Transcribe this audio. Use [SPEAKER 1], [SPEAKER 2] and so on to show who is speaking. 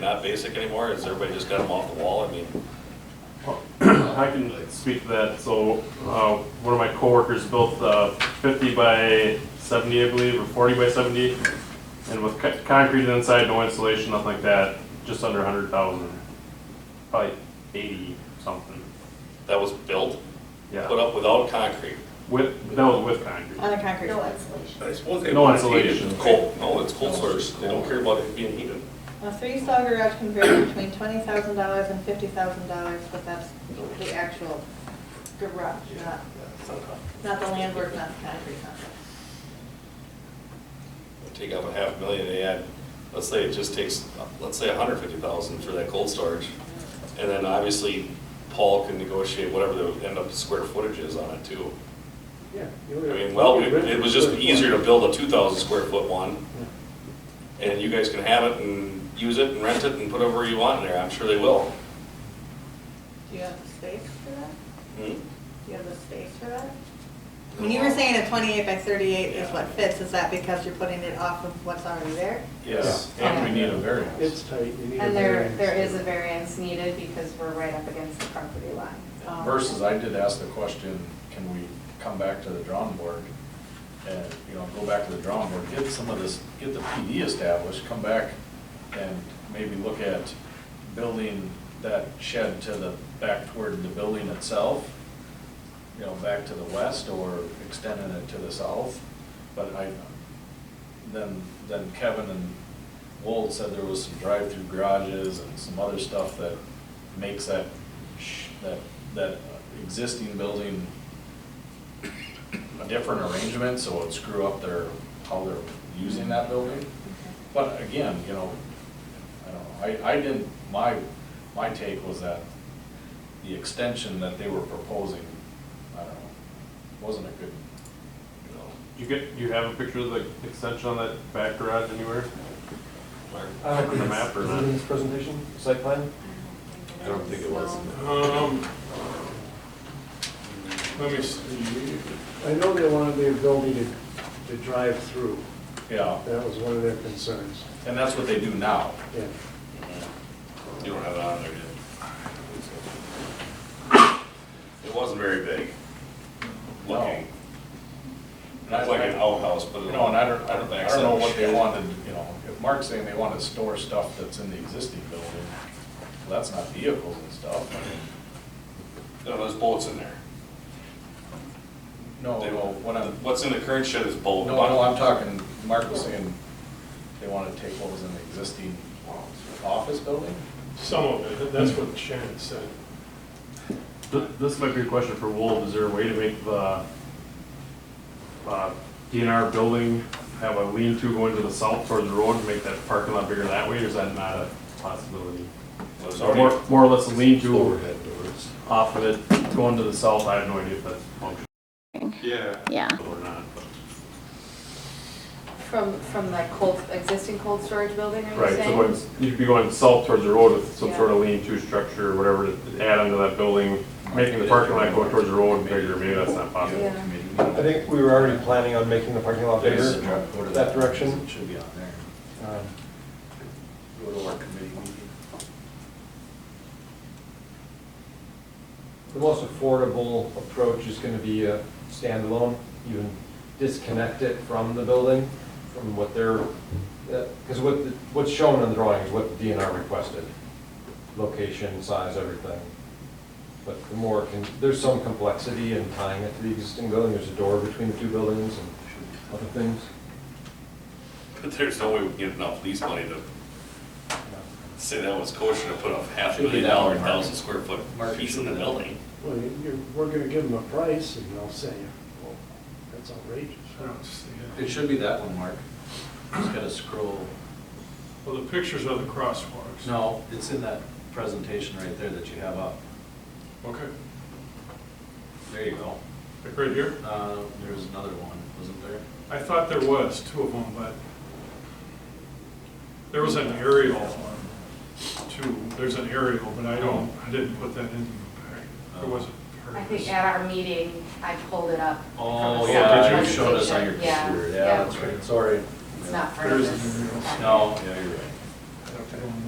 [SPEAKER 1] not basic anymore? Has everybody just got them off the wall? I mean,
[SPEAKER 2] I can speak to that. So, uh, one of my coworkers built a fifty by seventy, I believe, or forty by seventy, and with co- concrete inside, no insulation, nothing like that, just under a hundred thousand, probably eighty something.
[SPEAKER 1] that was built, put
[SPEAKER 2] Yeah,
[SPEAKER 1] up without concrete.
[SPEAKER 2] with that was with concrete.
[SPEAKER 3] On the concrete.
[SPEAKER 4] No insulation.
[SPEAKER 1] I suppose they
[SPEAKER 2] No
[SPEAKER 1] want it heated.
[SPEAKER 2] insulation.
[SPEAKER 1] Cold, no, it's cold source. They don't care about it being heated.
[SPEAKER 3] A three-stall garage can vary between twenty thousand dollars and fifty thousand dollars, but that's the actual garage, not,
[SPEAKER 1] It's not hot.
[SPEAKER 3] not the land work, not the concrete, not the.
[SPEAKER 1] Take out a half million, they add, let's say it just takes, let's say a hundred fifty thousand for that cold storage. And then obviously Paul can negotiate whatever the end up square footage is on it too.
[SPEAKER 5] Yeah.
[SPEAKER 1] I mean, well, it it was just easier to build a two thousand square foot one. And you guys can have it and use it and rent it and put whatever you want in there. I'm sure they will.
[SPEAKER 3] Do you have the space for that?
[SPEAKER 1] Hmm?
[SPEAKER 3] Do you have the space for that? When you were saying a twenty-eight by thirty-eight is what fits, is that because you're putting it off of what's already there?
[SPEAKER 1] Yes.
[SPEAKER 4] Yeah. And we
[SPEAKER 1] need a variance.
[SPEAKER 5] It's tight, you need a
[SPEAKER 4] And there,
[SPEAKER 5] variance.
[SPEAKER 4] there is a variance needed because we're right up against the property line. Um,
[SPEAKER 6] Versus, I did ask the question, can we come back to the drawing board? And, you know, go back to the drawing board, get some of this, get the PD established, come back and maybe look at building that shed to the, back toward the building itself, you know, back to the west or extending it to the south. But I, then, then Kevin and Wold said there was some drive-through garages and some other stuff that makes that, sh- that, that existing building a different arrangement, so it'd screw up their, how they're using that building. But again, you know, I don't know, I, I didn't, my, my take was that the extension that they were proposing, I don't know, wasn't a good, you know,
[SPEAKER 2] You get, you have a picture of the extension on that back garage anywhere?
[SPEAKER 5] Uh,
[SPEAKER 2] On the map or
[SPEAKER 5] is it
[SPEAKER 2] not?
[SPEAKER 5] in this presentation, site plan?
[SPEAKER 4] I don't think it was. no.
[SPEAKER 7] Um, let me see.
[SPEAKER 5] I know they wanted the ability to, to drive through.
[SPEAKER 6] yeah.
[SPEAKER 5] That was one of their concerns,
[SPEAKER 6] And that's what they do now.
[SPEAKER 5] yeah.
[SPEAKER 1] You don't have it on there yet. It wasn't very big.
[SPEAKER 6] No.
[SPEAKER 1] Looking,
[SPEAKER 6] And I-
[SPEAKER 1] not like an outhouse, but.
[SPEAKER 6] You know, and I don't, I don't, I don't know what they wanted, you know, if Mark's saying they want to store stuff that's in the existing building, well, that's not vehicles and stuff. I mean,
[SPEAKER 1] No, there's bolts in there.
[SPEAKER 6] No,
[SPEAKER 1] They-
[SPEAKER 6] no, what I'm,
[SPEAKER 1] What's in the current shed is
[SPEAKER 6] no,
[SPEAKER 1] bolt.
[SPEAKER 6] no, I'm talking, Mark was saying they want to take what was in the existing office building?
[SPEAKER 7] Some of it, that's what Shannon said.
[SPEAKER 2] Th- This might be a question for Wolf, is there a way to make the uh, DNR building have a lean-to going to the south toward the road and make that parking lot bigger that way, or is that not a possibility?
[SPEAKER 1] There's
[SPEAKER 2] Or
[SPEAKER 1] already,
[SPEAKER 2] more- more or less a lean-to
[SPEAKER 8] overhead doors.
[SPEAKER 2] off of it going to the south, I have no idea if that's functional
[SPEAKER 7] Yeah.
[SPEAKER 9] Yeah,
[SPEAKER 2] or not, but,
[SPEAKER 4] From, from the cold, existing cold storage building, are you
[SPEAKER 2] right, so
[SPEAKER 4] saying?
[SPEAKER 2] going, you'd be going south towards the road with some sort of lean-to structure, or whatever, to add onto that building, making the parking lot go towards the road bigger, maybe that's not possible.
[SPEAKER 4] Yeah.
[SPEAKER 5] I think we were already planning on making the parking lot
[SPEAKER 6] There's
[SPEAKER 5] bigger,
[SPEAKER 6] a truck, go to
[SPEAKER 5] that direction.
[SPEAKER 6] It should be on there.
[SPEAKER 5] Um,
[SPEAKER 6] Go to our committee meeting.
[SPEAKER 10] The most affordable approach is gonna be a standalone, you can disconnect it from the building, from what they're, because what, the- what's shown on the drawing is what the DNR requested, location, size, everything. But the more, can there's some complexity in tying it to the existing building, there's a door between the two buildings and other things.
[SPEAKER 1] but there's no way we can get enough lease money to say that was kosher to put a half a
[SPEAKER 6] Should be
[SPEAKER 1] million
[SPEAKER 6] that
[SPEAKER 1] dollar,
[SPEAKER 6] one, Mark.
[SPEAKER 1] thousand square foot
[SPEAKER 6] Mark, you
[SPEAKER 1] piece in the
[SPEAKER 6] should be that one.
[SPEAKER 1] building.
[SPEAKER 5] Well, you- you, we're gonna give them a price and they'll say, well, that's outrageous.
[SPEAKER 7] I don't see it.
[SPEAKER 6] It should be that one, Mark. Just gotta scroll.
[SPEAKER 7] Well, the pictures are the crosswalks.
[SPEAKER 6] No, it's in that presentation right there that you have up.
[SPEAKER 7] Okay,
[SPEAKER 6] There you go.
[SPEAKER 7] like right here?
[SPEAKER 6] Uh, there's another one, wasn't there?
[SPEAKER 7] I thought there was two of them, but there was an aerial too. There's an aerial, but I don't, I didn't put that in
[SPEAKER 6] Uh,
[SPEAKER 7] the pack. It wasn't part
[SPEAKER 4] I
[SPEAKER 7] of
[SPEAKER 4] think
[SPEAKER 7] this.
[SPEAKER 4] at our meeting, I pulled it up.
[SPEAKER 6] Oh,
[SPEAKER 4] from the
[SPEAKER 6] yeah,
[SPEAKER 4] slide
[SPEAKER 6] you showed us on your
[SPEAKER 4] presentation.
[SPEAKER 6] computer,
[SPEAKER 4] Yeah,
[SPEAKER 6] yeah, that's right, sorry.
[SPEAKER 4] It's not part
[SPEAKER 7] There
[SPEAKER 4] of
[SPEAKER 7] is an
[SPEAKER 4] this.
[SPEAKER 7] aerial.
[SPEAKER 6] No, yeah, you're right.
[SPEAKER 7] I don't know.